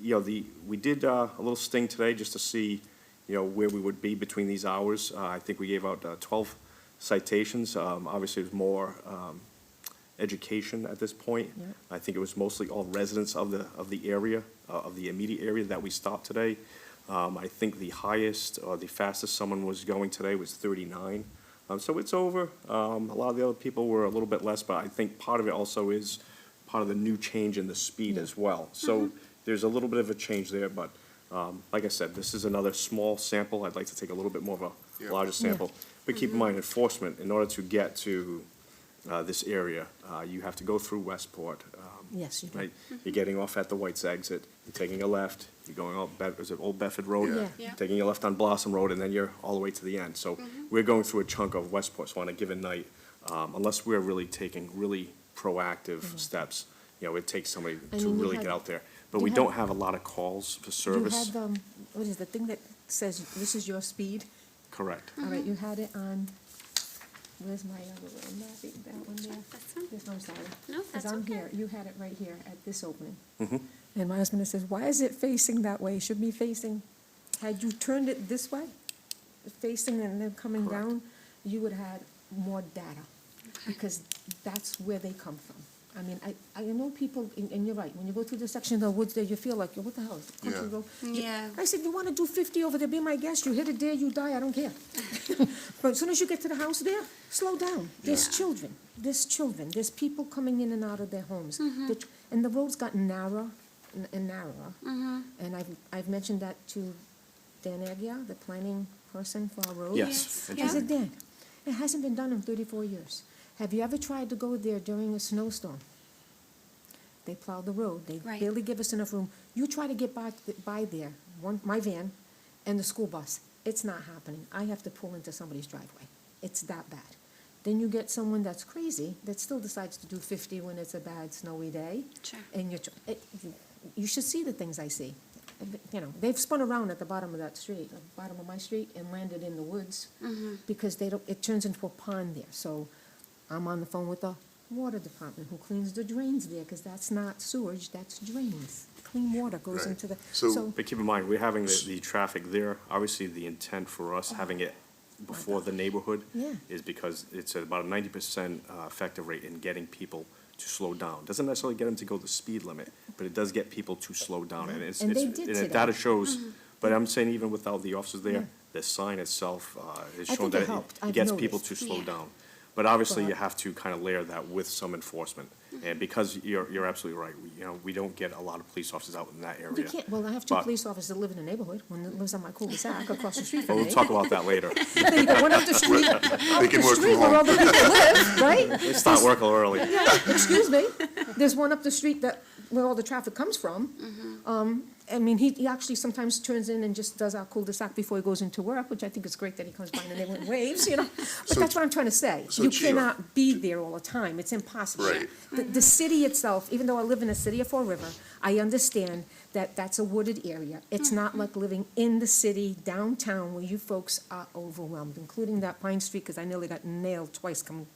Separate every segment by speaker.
Speaker 1: you know, the, we did uh, a little sting today just to see, you know, where we would be between these hours. Uh, I think we gave out uh, 12 citations. Um, Obviously, it was more um, education at this point.
Speaker 2: Yep.
Speaker 1: I think it was mostly all residents of the, of the area, uh, of the immediate area that we stopped today. Um, I think the highest or the fastest someone was going today was 39. Um, So it's over. Um, A lot of the other people were a little bit less, but I think part of it also is part of the new change in the speed as well. So there's a little bit of a change there, but um, like I said, this is another small sample. I'd like to take a little bit more of a
Speaker 3: Yeah.
Speaker 1: larger sample. But keep in mind enforcement, in order to get to uh, this area, uh, you have to go through Westport. um,
Speaker 2: Yes, you do.
Speaker 1: Right, you're getting off at the White's exit, you're taking a left, you're going up, Be- is it Old Bedford Road?
Speaker 3: Yeah.
Speaker 2: Yeah. Mm-hmm.
Speaker 3: Yeah.
Speaker 1: Taking a left on Blossom Road, and then you're all the way to the end. So we're going through a chunk of Westport, so on a given night, um, unless we're really taking really proactive steps, you know, it takes somebody
Speaker 2: I
Speaker 1: to
Speaker 2: mean, Mm-hmm. you
Speaker 1: really
Speaker 2: had-
Speaker 1: get out there. But
Speaker 2: you
Speaker 1: we
Speaker 2: had-
Speaker 1: don't have a lot of calls for service.
Speaker 2: You had, um, what is the thing that says, this is your speed?
Speaker 1: Correct.
Speaker 2: All right, you had it on, where's my other little map, that one there?
Speaker 3: That's fine.
Speaker 2: This, I'm sorry.
Speaker 3: No, that's
Speaker 2: Because I'm
Speaker 3: okay.
Speaker 2: here, you had it right here at this opening. And my husband says, why is it facing that way? It Should be facing, had you turned it this way, facing and then coming
Speaker 1: Correct.
Speaker 2: down, you would have had more data. Because that's where they come from. I mean, I, I know people, and, and you're right, when you go through the section of the woods there, you feel like, what the hell, is it country
Speaker 3: Yeah.
Speaker 2: road? You-
Speaker 3: Yeah.
Speaker 2: I said, you wanna do fifty over there, be my guest, you hit it there, you die, I don't care. But as soon as you get to the house there, slow down. There's
Speaker 3: Yeah.
Speaker 2: children, there's children, there's people coming in and out of their homes. The tr- And the roads got narrower n- and narrower. And I've, I've mentioned that to Dan Agia, the planning person for our roads.
Speaker 1: Yes.
Speaker 3: Yes,
Speaker 1: I
Speaker 2: I
Speaker 1: do.
Speaker 2: said, Dan, it hasn't been done in thirty-four years. Have you ever tried to go there during a snowstorm? They plow the road, they
Speaker 3: Right.
Speaker 2: barely give us enough room. You try to get by, th- by there, one, my van and the school bus, it's not happening. I have to pull into somebody's driveway. It's that bad. Then you get someone that's crazy, that still decides to do fifty when it's a bad snowy day.
Speaker 3: Sure.
Speaker 2: And you're, tr- it, you- Eh, you should see the things I see. You know, they've spun around at the bottom of that street, the bottom of my street, and landed in the woods. Because they don't, it turns into a pond there, so I'm on the phone with the water department who cleans the drains there, because that's not sewage, that's drains. Clean water goes
Speaker 3: Right.
Speaker 2: into the,
Speaker 3: So-
Speaker 2: so,
Speaker 1: But keep in mind, we're having the, the traffic there, obviously the intent for us having it before the neighborhood
Speaker 2: Oh. Yeah.
Speaker 1: is because it's about a ninety percent uh, effective rate in getting people to slow down. Doesn't necessarily get them to go the speed limit, but it does get people to slow down, and it's,
Speaker 2: And
Speaker 1: it's,
Speaker 2: they did
Speaker 1: and the
Speaker 2: today. Mm-hmm.
Speaker 1: data shows, but I'm saying even without the officers
Speaker 2: Yeah.
Speaker 1: there, the sign itself, uh, is
Speaker 2: I
Speaker 1: showing
Speaker 2: think
Speaker 1: that
Speaker 2: it helped.
Speaker 1: it- it
Speaker 2: I've
Speaker 1: gets people
Speaker 2: noticed.
Speaker 1: to slow
Speaker 3: Yeah.
Speaker 1: down. But obviously, you
Speaker 2: But- Mm-hmm.
Speaker 1: have to kind of layer that with some enforcement, and because you're, you're absolutely right, we, you know, we don't get a lot of police officers out in that area.
Speaker 2: you can't, well, I have two
Speaker 1: But-
Speaker 2: police officers that live in the neighborhood, one that lives on my cul-de-sac across the
Speaker 1: But
Speaker 2: street from me.
Speaker 1: we'll talk about that later.
Speaker 2: They go one up the street, up
Speaker 3: can
Speaker 2: the
Speaker 3: work from
Speaker 2: street where all
Speaker 3: home.
Speaker 2: the people live, right?
Speaker 1: It's not work early.
Speaker 2: excuse me, there's one up the street that, where all the traffic comes from.
Speaker 3: Mm-hmm.
Speaker 2: Um, I mean, he, he actually sometimes turns in and just does our cul-de-sac before he goes into work, which I think is great that he comes by and they went waves, you know? But that's what I'm trying to say.
Speaker 3: so
Speaker 2: You
Speaker 3: Chief-
Speaker 2: cannot be there all the time, it's impossible.
Speaker 3: Right.
Speaker 2: The, the city itself, even though I live in the city of Fall River, I understand that that's a wooded area.
Speaker 3: Mm-hmm.
Speaker 2: It's not like living in the city downtown where you folks are overwhelmed, including that Pine Street, because I nearly got nailed twice coming,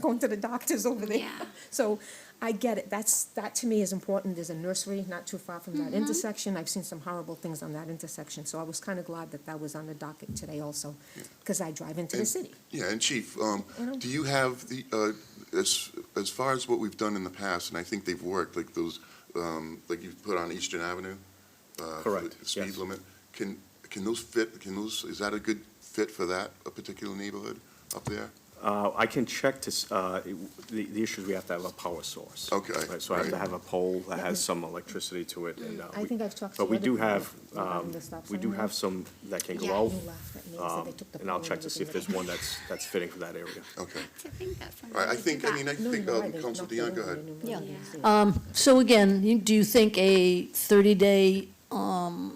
Speaker 2: going to the doctors over there.
Speaker 3: Yeah.
Speaker 2: So I get it, that's, that to me is important, there's a nursery not too far from
Speaker 4: Mm-hmm.
Speaker 2: that intersection, I've seen some horrible things on that intersection, so I was kind of glad that that was on the docket today also, because I drive into the
Speaker 3: And-
Speaker 2: city.
Speaker 3: Yeah, and Chief, um,
Speaker 2: You know?
Speaker 3: do you have the, uh, as, as far as what we've done in the past, and I think they've worked, like those, um, like you've put on Eastern Avenue? uh, for the
Speaker 1: Correct,
Speaker 3: Speed
Speaker 1: yes.
Speaker 3: limit, can, can those fit, can those, is that a good fit for that, a particular neighborhood up there?
Speaker 1: Uh, I can check to, s- uh, it- the, the issue is we have to have a power source.
Speaker 3: Okay,
Speaker 1: Right, So I have to
Speaker 3: right.
Speaker 1: have a pole that has
Speaker 2: Yeah.
Speaker 1: some electricity to it and. uh,
Speaker 2: I
Speaker 1: we-
Speaker 2: think I've talked to
Speaker 1: But we
Speaker 2: other
Speaker 1: do
Speaker 2: people
Speaker 1: have,
Speaker 2: regarding
Speaker 1: um,
Speaker 2: the stop
Speaker 1: we
Speaker 2: sign
Speaker 1: do
Speaker 2: there.
Speaker 1: have some that can
Speaker 2: Yeah,
Speaker 1: go out.
Speaker 2: you laughed at me and said
Speaker 1: um,
Speaker 2: they took the
Speaker 1: And I'll
Speaker 2: pole
Speaker 1: check
Speaker 2: and
Speaker 1: to see if
Speaker 2: everything
Speaker 1: there's one that's, that's fitting for that area.
Speaker 3: Okay.
Speaker 4: To think that from
Speaker 3: All right, I
Speaker 4: when they
Speaker 3: think,
Speaker 4: did
Speaker 3: I mean,
Speaker 4: that.
Speaker 3: I
Speaker 2: No,
Speaker 3: think,
Speaker 2: you're
Speaker 3: um,
Speaker 2: right, they
Speaker 3: Council
Speaker 2: knocked it
Speaker 3: Dion, go
Speaker 2: over
Speaker 3: ahead.
Speaker 2: and they
Speaker 4: Yeah.
Speaker 2: moved it.
Speaker 5: So again, you- do you think a 30-day
Speaker 2: Mm.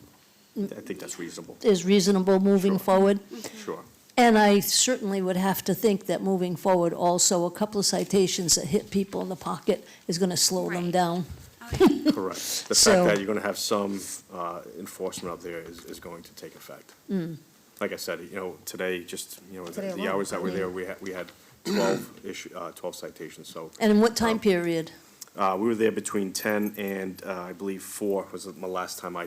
Speaker 1: I think that's reasonable,
Speaker 5: is reasonable moving forward?
Speaker 1: sure.
Speaker 5: And I certainly would have to think that moving forward, also, a couple of citations that hit people in the pocket is going to slow them
Speaker 4: Right.
Speaker 5: down.
Speaker 1: Correct. The
Speaker 5: So-
Speaker 1: fact that you're gonna have some uh, enforcement out there is, is going to take effect. Like I said, you know, today, just, you know, the
Speaker 2: Mm. Today
Speaker 1: the
Speaker 2: alone,
Speaker 1: hours that
Speaker 2: I
Speaker 1: were there,
Speaker 2: mean-
Speaker 1: we had, we had twelve issue, uh, twelve citations, so.
Speaker 5: And in what time
Speaker 1: Um,
Speaker 5: period?
Speaker 1: Uh, We were there between 10 and, uh, I believe, 4 was the my last time I